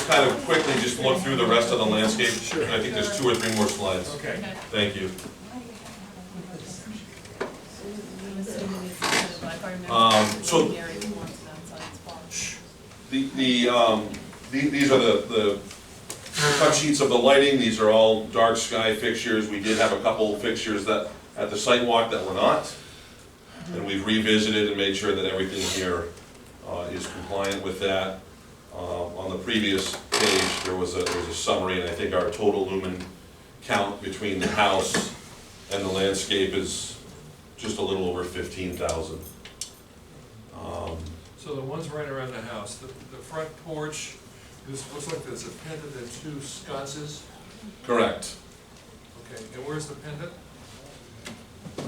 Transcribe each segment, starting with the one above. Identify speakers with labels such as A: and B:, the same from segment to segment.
A: kind of quickly just look through the rest of the landscape.
B: Sure.
A: I think there's two or three more slides.
B: Okay.
A: Thank you.
C: I'm assuming it's kind of like our member-
A: Um, so-
C: Gary wants it outside, it's fine.
A: The, the, um, the- these are the, the cut sheets of the lighting, these are all dark sky fixtures. We did have a couple fixtures that, at the site walk that were not. And we've revisited and made sure that everything here uh, is compliant with that. Um, On the previous page, there was a, there was a summary, and I think our total lumen count between the house and the landscape is just a little over fifteen thousand.
B: So the ones right around the house, the, the front porch, this looks like there's a pendant and two sconces.
A: Correct.
B: Okay, and where's the pendant?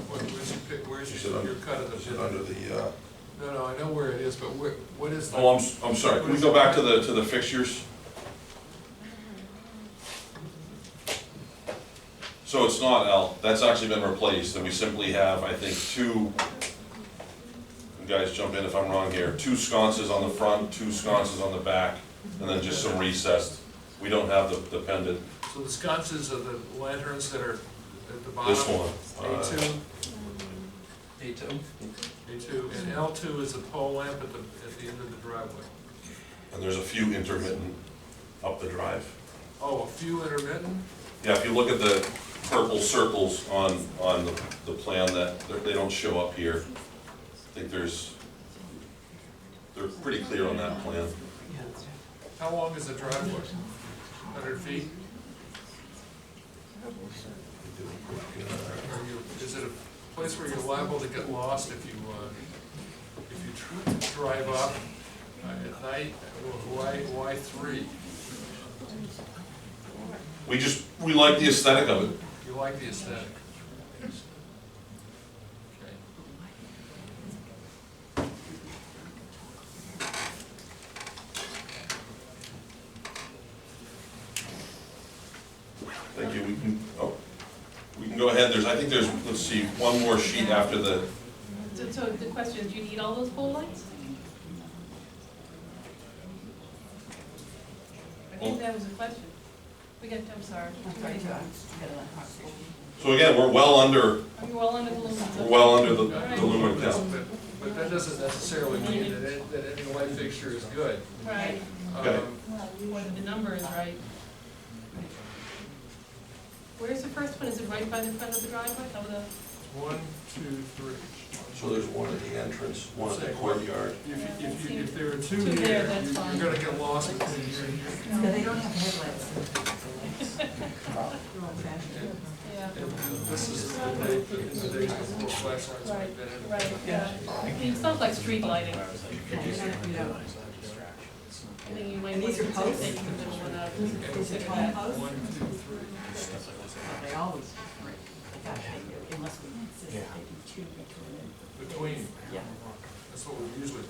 B: What, where's your, pic- where's
A: Is it
B: your,
A: under-
B: your cut of the pendant?
A: Under the, uh,
B: No, no, I know where it is, but where, what is that?
A: Oh, I'm, s- I'm sorry, can we go back to the, to the fixtures? So it's not L, that's actually been replaced, and we simply have, I think, two, you guys jump in if I'm wrong here, two sconces on the front, two sconces on the back, and then just some recessed. We don't have the, the pendant,
B: So the sconces are the lanterns that are at the bottom?
A: this one.
B: A
A: uh,
B: two,
D: Me too.
B: A two, and L two is the pole lamp at the, at the end of the driveway.
A: And there's a few intermittent up the drive.
B: Oh, a few intermittent?
A: Yeah, if you look at the purple circles on, on the, the plan that, they're- they don't show up here. I think there's, they're pretty clear on that plan.
B: How long is the driveway? Hundred feet? Are you, is it a place where you're liable to get lost if you, uh, if you tr- drive up uh, at night? Why, why three?
A: We just, we like the aesthetic of it.
B: You like the aesthetic? Okay.
A: Thank you, we can, oh, we can go ahead, there's, I think there's, let's see, one more sheet after the,
C: So, so the question is, do you need all those pole lights? I think that was a question. We got, I'm sorry. I'm sorry.
A: so again, we're well under,
C: Are you all under the limits?
A: we're well under the
B: Right.
A: the lumen count.
B: But- But that doesn't necessarily mean that, it- that any light fixture is good.
C: Right,
A: Okay.
B: Um,
C: what the number is right. Where's the first one? Is it right by the front of the driveway? How the,
B: One, two, three.
A: So there's one at the entrance, one
B: at the
A: courtyard.
B: If, you- if, you- if there are two
C: Two there,
B: here,
C: that's
B: you-
C: fine.
B: you're gonna get lost between here and here.
E: No, they don't have headlights. They're old fashioned.
C: yeah,
B: And This is the day, in the days before flashlights
C: Right.
B: like that.
C: right, yeah. It's not like street lighting. I think you might
E: And
C: want
E: these
C: to
E: are
C: take
E: posts?
C: that you can do one out.
E: Is it home post?
B: One, two, three.
E: They always, gosh, they do, unless we insist they do two between
B: Between,
E: Yeah.
B: that's what we usually.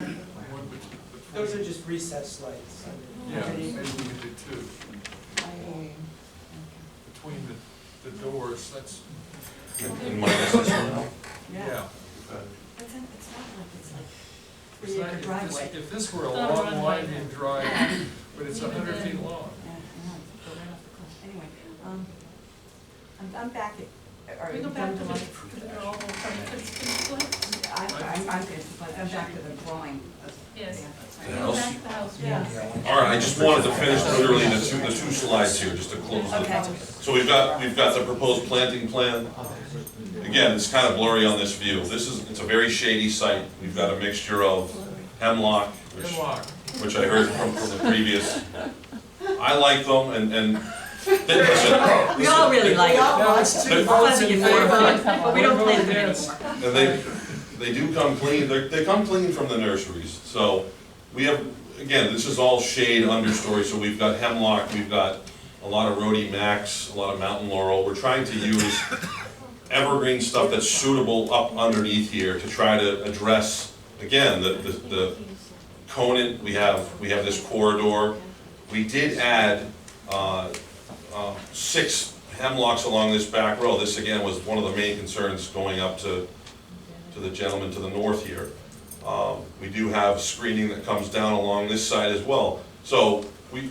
B: One between.
F: Those are just recessed lights.
B: Yeah, maybe we could do two, between the, the doors, that's,
A: And minus this one.
E: Yeah.
B: yeah.
E: But then it's not like it's like
B: It's
E: three
B: not-
E: acre
B: if this-
E: driveway.
B: If this were a
C: Not a
B: long,
C: runway.
B: winding drive, but it's a
C: Even
B: hundred
C: then.
B: feet long.
E: Yeah, I know, it's go right off the cliff. Anyway, um, I'm, I'm back at, or.
C: Can we go back to the, to the girl who started Christmas lights?
E: I, I'm, I'm, good, but I'm back to the drawing.
C: Yes.
A: The
C: Go
A: house?
C: back to the house,
E: Yeah.
C: yes.
A: All right, I just wanted to finish literally the two, the two slides here, just to close the,
E: Okay.
A: So we've got, we've got the proposed planting plan. Again, it's kind of blurry on this view. This is, it's a very shady site. We've got a mixture of hemlock, which,
B: Hemlock,
A: which I heard from, from the previous. I like them and, and, listen,
E: We all really like it.
B: No, it's two votes in
E: Four votes,
B: favor.
E: but we don't plan them
B: Yes.
E: anymore.
A: And they, they do come clean, they, they come clean from the nurseries, so we have, again, this is all shade understory, so we've got hemlock, we've got a lot of rhodi max, a lot of mountain laurel, we're trying to use evergreen stuff that's suitable up underneath here to try to address, again, the, the, the conant, we have, we have this corridor. We did add, uh, uh, six hemlocks along this back row. This again was one of the main concerns going up to, to the gentleman to the north here. Um, We do have screening that comes down along this side as well. So